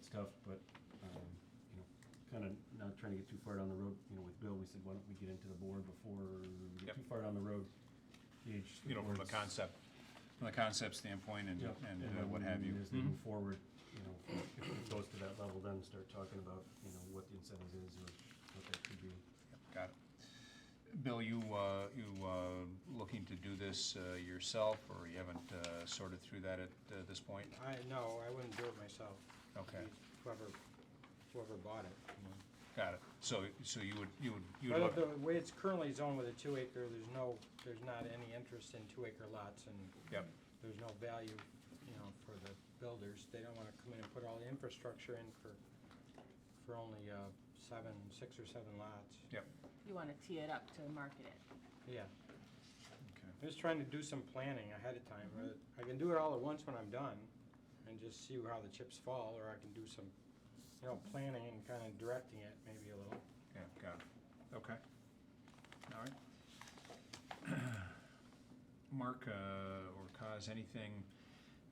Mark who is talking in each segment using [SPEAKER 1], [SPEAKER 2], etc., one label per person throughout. [SPEAKER 1] stuff, but, um, you know, kinda not trying to get too far down the road, you know, with Bill, we said, why don't we get into the board before we get
[SPEAKER 2] Yep.
[SPEAKER 1] too far down the road? Gauge the
[SPEAKER 2] you know, from a
[SPEAKER 1] board's-
[SPEAKER 2] concept, from a concept standpoint and,
[SPEAKER 1] Yeah,
[SPEAKER 2] and uh, what have you.
[SPEAKER 1] As they move forward, you know, if it goes to that level, then start talking about, you know, what the incentive is or what that could be.
[SPEAKER 2] Yep, Got it. Bill, you, uh, you, uh, looking to do this, uh, yourself, or you haven't, uh, sorted through that at, uh, this point?
[SPEAKER 3] I, no, I wouldn't do it myself.
[SPEAKER 2] Okay,
[SPEAKER 3] Whoever, whoever bought it.
[SPEAKER 2] got it. So, so you would, you would, you would
[SPEAKER 3] But
[SPEAKER 2] look,
[SPEAKER 3] the way it's currently zoned with a two acre, there's no, there's not any interest in two acre lots and
[SPEAKER 2] yep,
[SPEAKER 3] there's no value, you know, for the builders. They don't wanna come in and put all the infrastructure in for, for only, uh, seven, six or seven lots.
[SPEAKER 4] You wanna tee it up to market it.
[SPEAKER 3] Yeah,
[SPEAKER 2] okay.
[SPEAKER 3] I'm just trying to do some planning ahead of time.
[SPEAKER 5] Mm-hmm.
[SPEAKER 3] rather- I can do it all at once when I'm done and just see how the chips fall, or I can do some, you know, planning and kinda directing it maybe a little.
[SPEAKER 2] Yeah, got it. Okay. All right. Mark, uh, or Kaz, anything,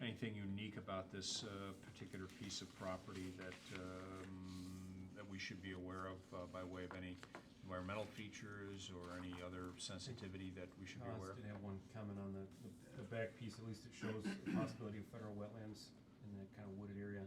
[SPEAKER 2] anything unique about this uh, particular piece of property that, um, that we should be aware of uh, by way of any environmental features or any other sensitivity that we should be
[SPEAKER 1] Oz
[SPEAKER 2] aware of?
[SPEAKER 1] did have one comment on the, the- the back piece, at least it shows the possibility of federal wetlands in that kind of wooded area.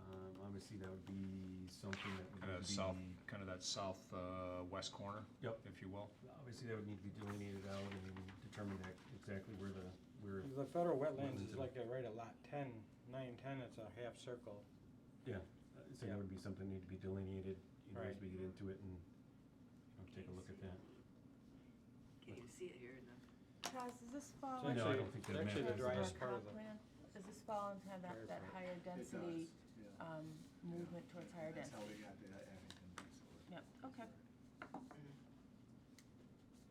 [SPEAKER 1] Um, obviously, that would be something that would
[SPEAKER 2] Kind
[SPEAKER 1] need
[SPEAKER 2] of
[SPEAKER 1] to be.
[SPEAKER 2] south, kind of that south uh, west corner,
[SPEAKER 1] Yep,
[SPEAKER 2] if you will?
[SPEAKER 1] obviously, that would need to be delineated out and determine that exactly where the, where,
[SPEAKER 3] The federal wetlands
[SPEAKER 1] Wetlands
[SPEAKER 3] is
[SPEAKER 1] in-
[SPEAKER 3] like a right at lot ten, nine, ten, it's a half circle.
[SPEAKER 1] yeah. uh, So that would be something need to be delineated, you know, as
[SPEAKER 3] Right.
[SPEAKER 1] we get into it and, you know, take a look at that.
[SPEAKER 6] Can't even see it here in the.
[SPEAKER 4] Kaz, does this fall?
[SPEAKER 1] No, I
[SPEAKER 3] It's
[SPEAKER 4] into
[SPEAKER 1] don't
[SPEAKER 3] actually-
[SPEAKER 1] think
[SPEAKER 3] it's
[SPEAKER 1] that
[SPEAKER 3] Actually, the
[SPEAKER 1] matters.
[SPEAKER 3] driest
[SPEAKER 4] our
[SPEAKER 3] part of
[SPEAKER 4] comp
[SPEAKER 3] the,
[SPEAKER 4] plan? Does this fall into that, that
[SPEAKER 3] Terrifying.
[SPEAKER 4] higher
[SPEAKER 7] It does,
[SPEAKER 4] density,
[SPEAKER 7] yeah.
[SPEAKER 4] um, movement
[SPEAKER 7] Yeah,
[SPEAKER 4] towards
[SPEAKER 7] yeah,
[SPEAKER 4] higher
[SPEAKER 7] That's how we
[SPEAKER 4] density?
[SPEAKER 7] got the Abington basically.
[SPEAKER 4] Yep, okay.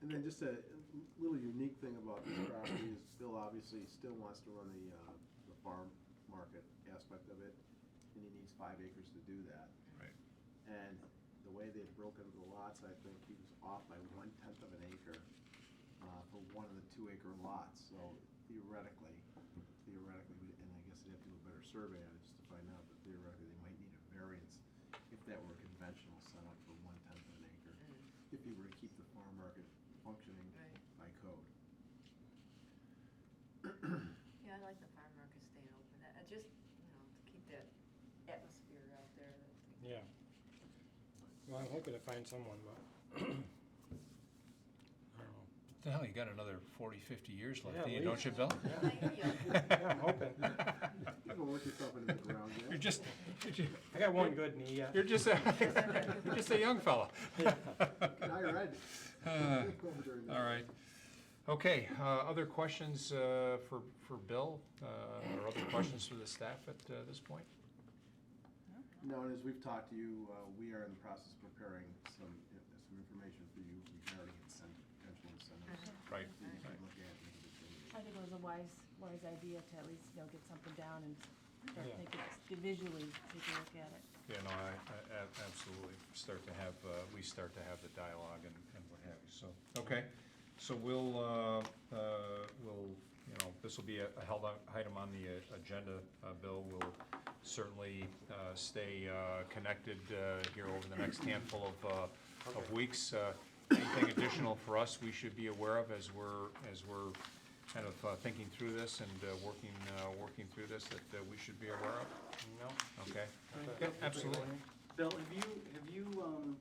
[SPEAKER 7] And then just a little unique thing about this property is Bill obviously still wants to run the, uh, the farm market aspect of it, and he needs five acres to do that.
[SPEAKER 2] Right.
[SPEAKER 7] And the way they've broken the lots, I think he was off by one tenth of an acre, uh, for one of the two acre lots, so theoretically, theoretically, we- and I guess they'd have to do a better survey on it just to find out, but theoretically, they might need a variance if that were a conventional setup for one tenth of an acre, if you were to keep the farm market functioning
[SPEAKER 6] Right.
[SPEAKER 7] by code.
[SPEAKER 6] Yeah, I like the farm market staying open, I I just, you know, to keep that atmosphere out there, that's like.
[SPEAKER 3] yeah. Well, I'm hoping to find someone, but. I don't know.
[SPEAKER 2] What the hell, you got another 40, 50 years
[SPEAKER 3] Yeah,
[SPEAKER 2] left,
[SPEAKER 3] at
[SPEAKER 2] do you, don't
[SPEAKER 3] least.
[SPEAKER 2] you, Bill?
[SPEAKER 3] Yeah, I'm hoping.
[SPEAKER 7] You haven't worked yourself into the ground yet.
[SPEAKER 2] You're just,
[SPEAKER 3] I got one good knee, yeah.
[SPEAKER 2] you're just, a- you're just a young fella.
[SPEAKER 7] Get higher ed.
[SPEAKER 2] Uh,
[SPEAKER 7] During this.
[SPEAKER 2] All right. Okay, uh, other questions uh, for, for Bill, uh, or other questions for the staff at uh, this point?
[SPEAKER 7] No, and as we've talked to you, uh, we are in the process of preparing some, uh, some information for you regarding incentive, potential incentives.
[SPEAKER 2] Right.
[SPEAKER 7] that you can look at and make a determination.
[SPEAKER 4] I think it was a wise, wise idea to at least, you know, get something down and start
[SPEAKER 3] Yeah.
[SPEAKER 4] thinking, visually take a look at it.
[SPEAKER 2] Yeah, no, I, I- a- absolutely, start to have, uh, we start to have the dialogue and, and what have you, so, okay. So we'll, uh, uh, we'll, you know, this will be a a held on- item on the uh, agenda, uh, Bill, we'll certainly uh, stay uh, connected uh, here over the next handful of, uh, of weeks. Uh, Anything additional for us we should be aware of as we're, as we're kind of uh, thinking through this and uh, working, uh, working through this that uh, we should be aware of?
[SPEAKER 3] No.
[SPEAKER 2] Okay? Yeah, absolutely.
[SPEAKER 5] Bill, have you, have you, um,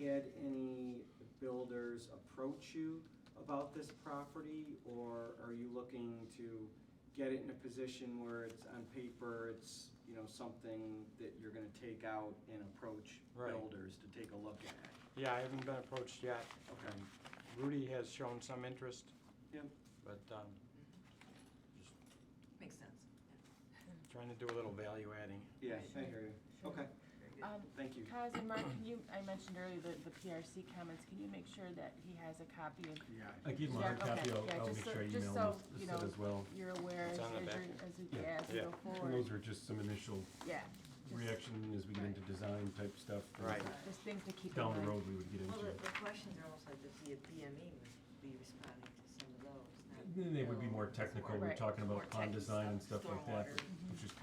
[SPEAKER 5] had any builders approach you about this property? Or are you looking to get it in a position where it's on paper, it's, you know, something that you're gonna take out and approach
[SPEAKER 3] Right.
[SPEAKER 5] builders to take a look at?
[SPEAKER 3] Yeah, I haven't been approached yet.
[SPEAKER 5] Okay.
[SPEAKER 3] Um, Rudy has shown some interest.
[SPEAKER 5] Yep.
[SPEAKER 3] But, um, just
[SPEAKER 6] Makes sense.
[SPEAKER 3] trying to do a little value adding.
[SPEAKER 5] Yeah, I hear you. Okay,
[SPEAKER 6] Very good.
[SPEAKER 4] Um,
[SPEAKER 5] thank you.
[SPEAKER 4] Kaz and Mark, can you, I mentioned earlier the, the PRC comments, can you make sure that he has a copy of
[SPEAKER 7] Yeah.
[SPEAKER 1] I give him a
[SPEAKER 4] Yeah,
[SPEAKER 1] hard copy,
[SPEAKER 4] okay,
[SPEAKER 1] I'll,
[SPEAKER 4] yeah,
[SPEAKER 1] I'll
[SPEAKER 4] just
[SPEAKER 1] make
[SPEAKER 4] so-
[SPEAKER 1] sure I
[SPEAKER 4] just
[SPEAKER 1] email
[SPEAKER 4] so,
[SPEAKER 1] him
[SPEAKER 4] you
[SPEAKER 1] this set
[SPEAKER 4] know,
[SPEAKER 1] as well.
[SPEAKER 4] you're aware as,
[SPEAKER 3] It's on the
[SPEAKER 4] as
[SPEAKER 3] back.
[SPEAKER 4] you're- as we,
[SPEAKER 1] Yeah,
[SPEAKER 4] yeah, as we
[SPEAKER 3] yeah.
[SPEAKER 4] go
[SPEAKER 1] And
[SPEAKER 4] forward,
[SPEAKER 1] Those are just some initial
[SPEAKER 4] yeah. just-
[SPEAKER 1] reaction as we get into design type stuff. and
[SPEAKER 3] Right.
[SPEAKER 4] Just things to keep in
[SPEAKER 1] Down
[SPEAKER 4] mind.
[SPEAKER 1] the road, we would get
[SPEAKER 6] Well,
[SPEAKER 1] into
[SPEAKER 6] the,
[SPEAKER 1] it.
[SPEAKER 6] the questions are also, does the DME must be responding to some of those? not-
[SPEAKER 1] Then they would be more
[SPEAKER 6] It's
[SPEAKER 1] technical, we're
[SPEAKER 4] Right.
[SPEAKER 1] talking
[SPEAKER 6] more
[SPEAKER 1] about pond
[SPEAKER 6] tech
[SPEAKER 1] design and stuff like that.
[SPEAKER 6] stormwater.